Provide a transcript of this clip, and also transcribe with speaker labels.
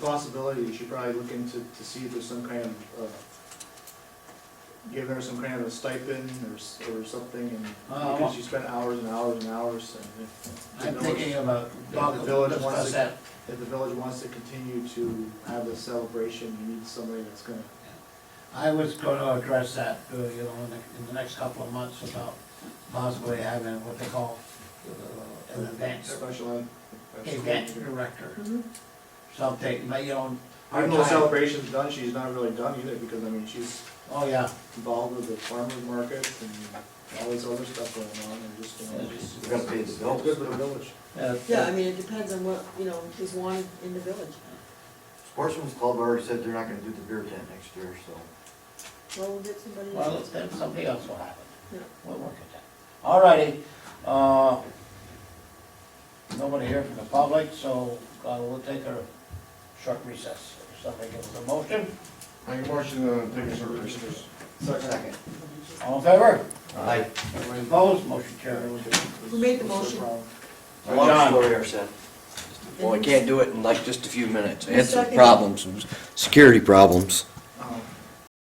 Speaker 1: possibility, you should probably look into, to see if there's some kind of, uh, giving her some kind of a stipend or, s- or something, and,
Speaker 2: Uh,
Speaker 1: because she spent hours and hours and hours, and if.
Speaker 2: I'm
Speaker 1: the village-
Speaker 2: thinking about,
Speaker 1: Bob, the village wants
Speaker 2: discuss
Speaker 1: to-
Speaker 2: that.
Speaker 1: If the village wants to continue to have this celebration, you need somebody that's gonna,
Speaker 2: I was gonna address that, uh, you know, in the, in the next couple of months about possibly having what they call uh, an event,
Speaker 1: special ed.
Speaker 2: event director,
Speaker 3: Mm-hmm.
Speaker 1: Mhm.
Speaker 2: something, but you know. our
Speaker 1: Even though the
Speaker 2: time-
Speaker 1: celebration's done, she's not really done either, because, I mean, she's
Speaker 2: Oh, yeah,
Speaker 1: involved with the farmer's market and all this other stuff going on, and just, you know, it's
Speaker 4: We gotta pay the bills.
Speaker 1: good for the village.
Speaker 2: uh,
Speaker 3: Yeah, I mean, it depends on what, you know, is wanted in the village.
Speaker 4: Sportsman's Club already said they're not gonna do the beer tent next year, so.
Speaker 3: Well, we'll get somebody.
Speaker 2: Well, then something else will happen.
Speaker 3: Yeah.
Speaker 2: We'll work at that. All righty, uh, nobody here from the public, so uh, we'll take a short recess. If somebody gives a motion,
Speaker 5: Make a motion to take a short recess.
Speaker 4: Second.
Speaker 2: all in favor?
Speaker 4: Aye.
Speaker 2: Everybody opposed, motion carries.
Speaker 3: Who made the motion?
Speaker 4: A
Speaker 2: John.
Speaker 4: long story, I said.
Speaker 6: Well, I can't do it in like just a few minutes. I had some
Speaker 3: Second.
Speaker 6: problems, some security problems.